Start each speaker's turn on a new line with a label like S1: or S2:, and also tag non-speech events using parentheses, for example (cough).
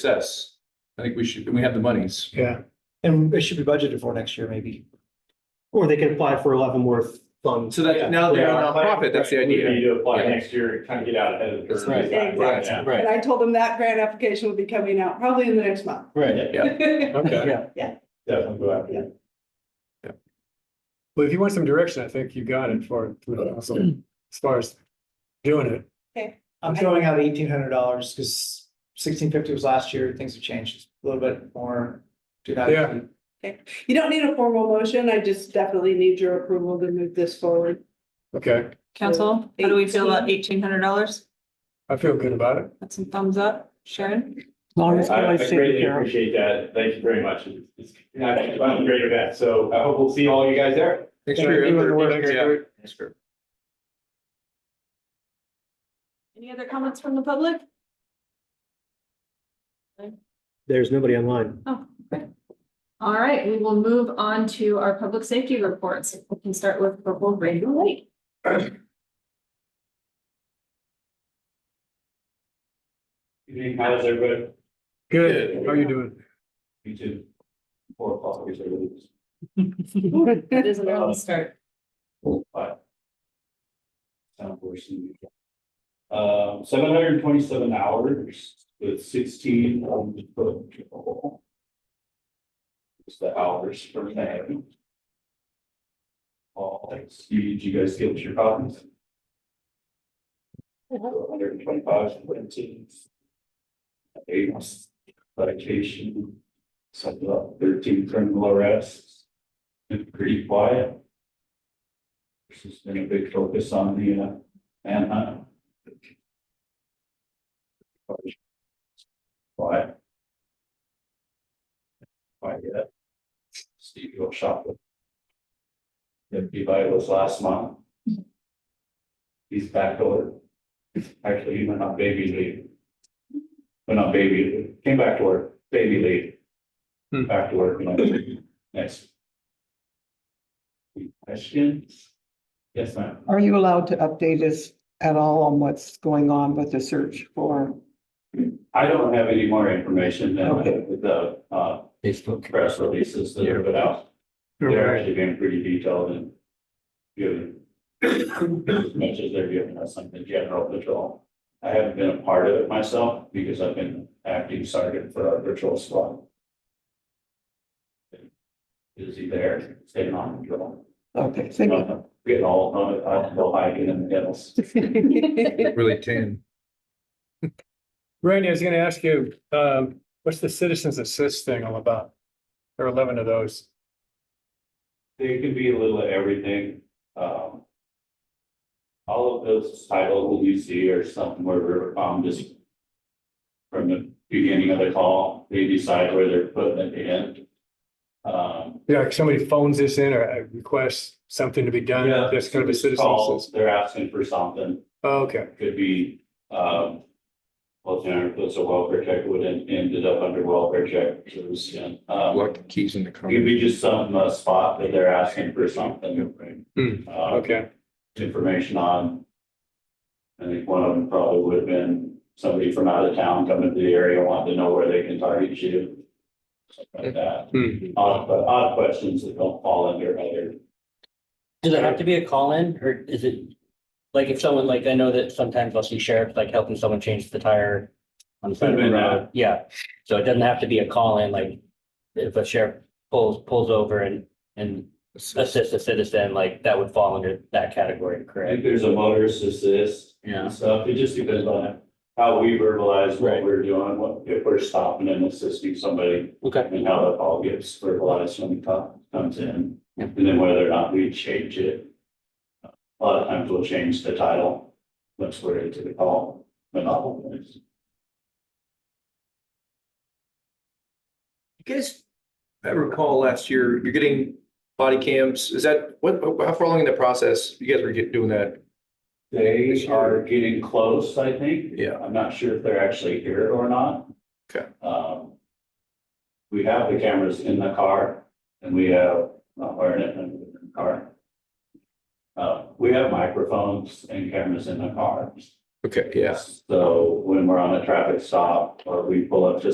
S1: success. I think we should, and we have the monies.
S2: Yeah, and it should be budgeted for next year, maybe. Or they can apply for eleven worth funds.
S1: So that now they're a
S3: Yeah.
S1: nonprofit, that's the
S3: Would be
S1: idea.
S3: to apply
S1: Yeah.
S3: next year and kind of get out ahead of the curve.
S4: That's right.
S3: Yeah.
S4: Exactly.
S5: Right.
S4: And I told them that grant application will be coming out probably in the next month.
S5: Right, okay.
S3: Definitely go after it.
S6: Well, if you want some direction, I think you got it for, for the (clears throat) council, as far as doing it.
S2: I'm throwing out eighteen hundred dollars because sixteen fifty was last year, things have changed a little bit more. Do that.
S6: Yeah.
S4: (laughs) You don't need a formal motion. I just definitely need your approval to move this forward.
S6: Okay,
S7: Council, how do we feel about eighteen hundred dollars?
S6: I feel good about it.
S7: That's some thumbs up. Sharon?
S5: Long as
S3: I I
S5: I
S3: greatly appreciate that. Thank you very much. It's- It's, I think it's a great event. So I hope we'll see all you guys there.
S1: Thanks for your effort. Yeah.
S6: Thank
S1: Thanks for-
S7: Any other comments from the public?
S2: There's nobody online.
S7: Oh, great. All right, we will move on to our public safety reports. We can start with Corporal Brandon Lake.
S3: Good evening, How's everybody?
S6: Good, how are you doing?
S3: You too. Four o'clock, I guess, I believe.
S7: That is an early start.
S3: but. Sound portion. Um, seven hundred and twenty-seven hours with sixteen on the book. It's the hours for that. All, thanks. You, did you guys get your copies? Hundred and twenty-five, twenty. Eight, medication, something about thirteen criminal arrests. Been pretty quiet. This has been a big focus on the, uh, manhunt. Why? Why, yeah. uh, Steve, you shop with. Deputy Vitals last month. He's back over. Actually, he went on baby leave. Went on baby, came back to work, baby
S6: Hmm.
S3: leave. Back to work, you know, next. Questions? Yes, ma'am.
S5: Are you allowed to update us at all on what's going on with the search for?
S3: I don't have any more information than
S5: Okay.
S3: the uh
S5: Facebook.
S3: press releases that are put out. They're actually being pretty detailed and giving as much as they're giving us something general patrol. I haven't been a part of it myself because I've been acting sergeant for our patrol squad. Busy there, staying on patrol.
S5: Okay, thank you.
S3: Getting all, I'll go hiking in the hills.
S1: Really ten.
S6: Randy, I was gonna ask you, um, what's the citizens assist thing all about? There are eleven of those.
S3: There could be a little of everything, um. All of those titles that you see are something where we're, um, just. From the beginning of the call, they decide where they're putting it in. Um.
S6: Yeah, like somebody phones this in or uh, requests something to be done, that's kind of a citizen's
S3: Calls,
S6: assist.
S3: They're asking for something,
S6: Oh, Okay,
S3: could be, um. Well, you know, if it's a welfare check, would end ended up under welfare check, so it was, yeah, um.
S1: Lock the keys in the car.
S3: It'd be just some uh, spot that they're asking for something.
S6: Hmm,
S3: Uh,
S6: okay,
S3: information on. I think one of them probably would have been somebody from out of town coming to the area wanting to know where they can target you. Something like that.
S6: Hmm.
S3: Odd, but odd questions that don't fall under other.
S8: Does it have to be a call-in or is it, like, if someone, like, I know that sometimes I'll see sheriffs, like, helping someone change the tire on the side of the
S3: Could've been
S8: road, yeah, so it doesn't have to be a call-in, like, if a sheriff pulls, pulls over and, and assists a citizen, like, that would fall under that category,
S3: I
S8: correct?
S3: think there's a motorist assist
S8: Yeah.
S3: and stuff. It just depends on how we verbalize what
S8: Right.
S3: we're doing, what, if we're stopping and assisting somebody.
S8: Okay.
S3: And how that all gets verbalized when it co- comes in,
S8: Yeah.
S3: and then whether or not we change it. A lot of times we'll change the title once we're into the call, but not always.
S1: You guys, I recall last year, you're getting body cams. Is that, what, how far along in the process? You guys were get- doing that?
S3: They are getting close, I think.
S1: Yeah.
S3: I'm not sure if they're actually here or not.
S1: Okay.
S3: Um. We have the cameras in the car and we have, not wearing it in the car. Uh, we have microphones and cameras in the cars.
S1: Okay, yeah.
S3: So when we're on a traffic stop or we pull up to